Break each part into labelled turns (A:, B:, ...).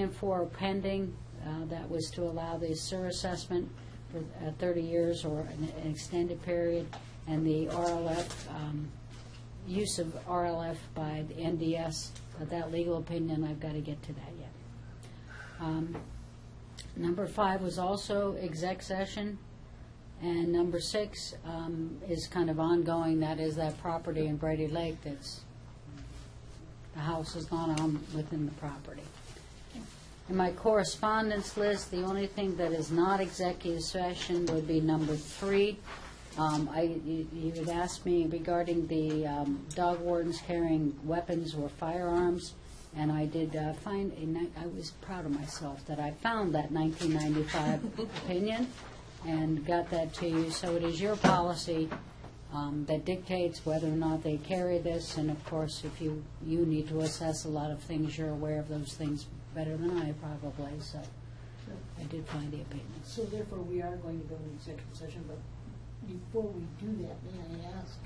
A: and four are pending. Uh, That was to allow the sewer assessment for uh, 30 years or an an extended period, and the RLF, um, use of RLF by the NDS, but that legal opinion, I've got to get to that yet. Um, Number five was also exec session, and number six um, is kind of ongoing, that is that property in Brady Lake that's, the house has gone on within the property. In my correspondence list, the only thing that is not executive session would be number three. Um, I, you you had asked me regarding the um, dog wardens carrying weapons or firearms, and I did uh, find, a ni- I was proud of myself that I found that 1995 opinion and got that to you. So it is your policy um, that dictates whether or not they carry this, and of course, if you, you need to assess a lot of things, you're aware of those things better than I probably, so I did find the opinions.
B: So therefore, we are going to go into executive session, but before we do that, may I ask,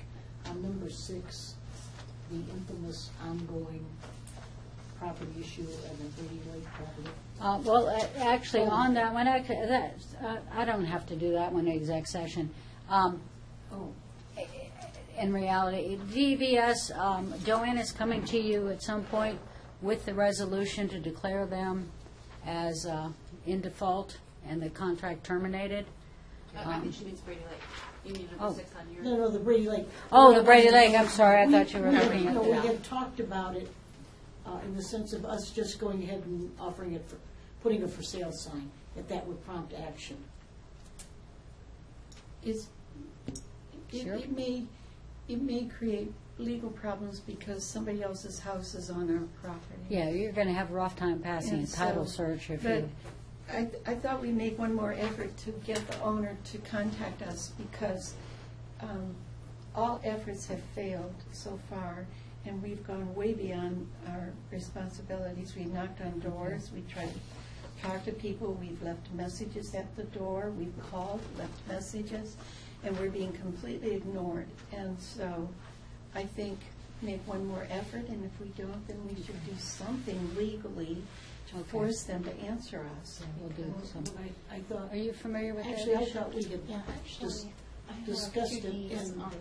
B: on number six, the infamous ongoing property issue and the Brady Lake property?
A: Uh, Well, a- actually, on that one, I, could- that, uh, I don't have to do that one in exec session. Um,
B: Oh,
A: in reality, DVS, um, Joanne is coming to you at some point with the resolution to declare them as uh, in default and the contract terminated.
C: No, I think she means Brady Lake. You need
A: Oh.
C: number six on your.
B: no, no, the Brady Lake.
A: Oh, the Brady Lake, I'm sorry, I thought you were
B: No,
A: looking at
B: No, we
A: the,
B: have talked about it uh, in the sense of us just going ahead and offering it, for putting a for sale sign, that that would prompt action.
D: is, it,
A: Sure.
D: it may, it may create legal problems because somebody else's house is on our property.
A: yeah, you're going to have a rough time passing a
D: And so-
A: title search if
D: But
A: you,
D: I, I thought we'd make one more effort to get the owner to contact us because um, all efforts have failed so far, and we've gone way beyond our responsibilities. We knocked on doors, we tried to talk to people, we've left messages at the door, we've called, left messages, and we're being completely ignored. And so I think make one more effort, and if we don't, then we should do something legally to
A: Okay.
D: force them to answer us.
A: we'll do some.
B: I, I thought,
A: Are you familiar with that?
B: actually, I
A: issue?
B: thought we had
E: Yeah,
B: just
E: actually, I have
B: discussed it
E: duties
B: in-
E: on my, on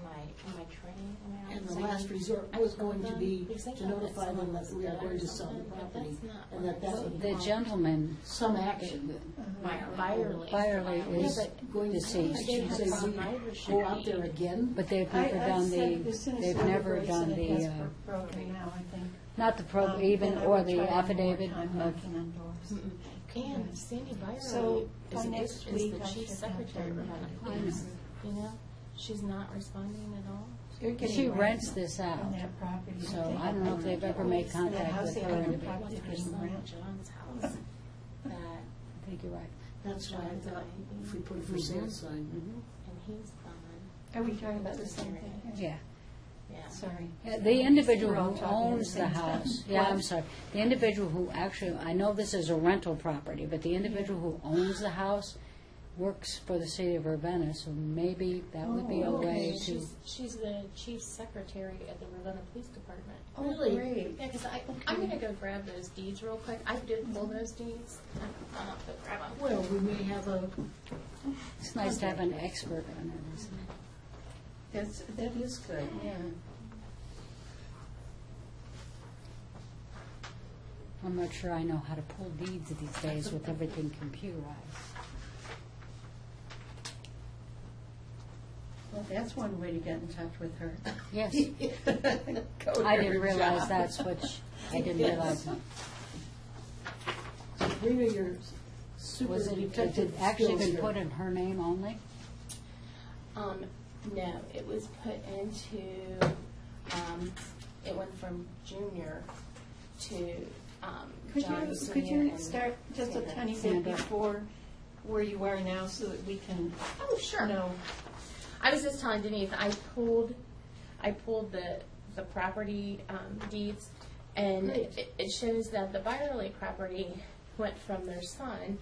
E: my training. when I
B: And
E: was
B: the
E: like-
B: last resort was going to be to notify them that we are going to sell the property, and that that would
A: The gentleman,
B: some action.
E: Byerly.
A: Byerly
E: Yeah,
A: is
E: but
B: Going to see,
A: deceased,
B: should say we go out there again?
A: but they've
D: I-
A: never
D: I've
A: done
D: said
A: the,
D: as soon as
A: they've
D: I
A: never
D: reverse
A: done
D: it, it
A: the,
D: has
A: uh,
D: bro- Broken now, I think.
A: not the pro,
D: Um,
A: even,
D: then I
A: or
D: would try
A: the
D: one more
A: affidavit
D: time
A: of Hmm.
D: knocking on doors.
E: And Sandy Byerly
D: So,
E: is
D: by
E: a-
D: next
E: is
D: week,
E: the
D: I
E: chief
D: should have
E: secretary
D: done
E: of
A: that. I
E: Atlantic, you know? She's not responding at all.
D: They're getting
A: She
D: rent
A: rents this out,
D: On that property.
A: so I don't know if they've ever made
D: And that
A: contact
D: house
A: with
D: they
A: her.
D: own,
A: I
D: the
E: It was
D: property
E: her
D: getting
E: son
D: rent.
E: John's house that,
A: I think you're right.
B: That's why I thought if we put a for sale sign,
E: and he's gone,
D: Are we talking about the same thing?
A: Yeah.
E: yeah.
D: Sorry.
A: Yeah, The individual
D: We're all
A: who
D: talking at the
A: owns the
D: same time.
A: house, yeah, I'm
D: What?
A: sorry, the individual who actually, I know this is a rental property, but the individual who owns the house works for the city of Ravenna, so maybe that would be a
D: Oh,
A: way to,
E: She's, she's the chief secretary at the Ravenna Police Department.
D: Oh,
B: Really?
D: great.
E: Yeah, because I, I'm gonna go grab those deeds real quick. I did
D: Mm-hmm.
E: pull those deeds. I'll have to grab them.
B: well, we may have a,
A: it's nice to have an expert on it, isn't it?
D: That's, that is good, yeah.
A: I'm not sure I know how to pull deeds these days with everything computerized.
D: Well, that's one way to get in touch with her.
A: Yes,
D: Go to
A: I
D: her
A: didn't realize
D: job.
A: that's what, she- I didn't realize that.
B: Rita, your super
A: Was it, has
B: detective
A: it actually
B: skills
A: been
B: here.
A: put in her name only?
E: Um, no, it was put into, um, it went from junior to, um,
D: Could
E: John
D: you,
E: senior.
D: could you
E: and
D: start just a
E: Sandra.
D: tiny bit
A: Sandra.
D: before where you are now so that we can
E: Oh, sure.
D: know?
E: I was just telling Denise, I pulled, I pulled the, the property um, deeds, and it it shows that the Byerly property went from their son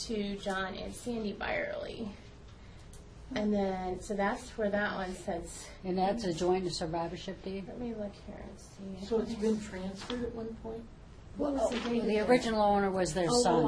E: to John and Sandy Byerly. And then, so that's where that one says,
A: And that's a joint survivorship deed?
E: let me look here and see.
B: So it's been transferred at one point?
A: What was the date of
D: The
A: that?
D: original owner was their
A: Oh,
D: son.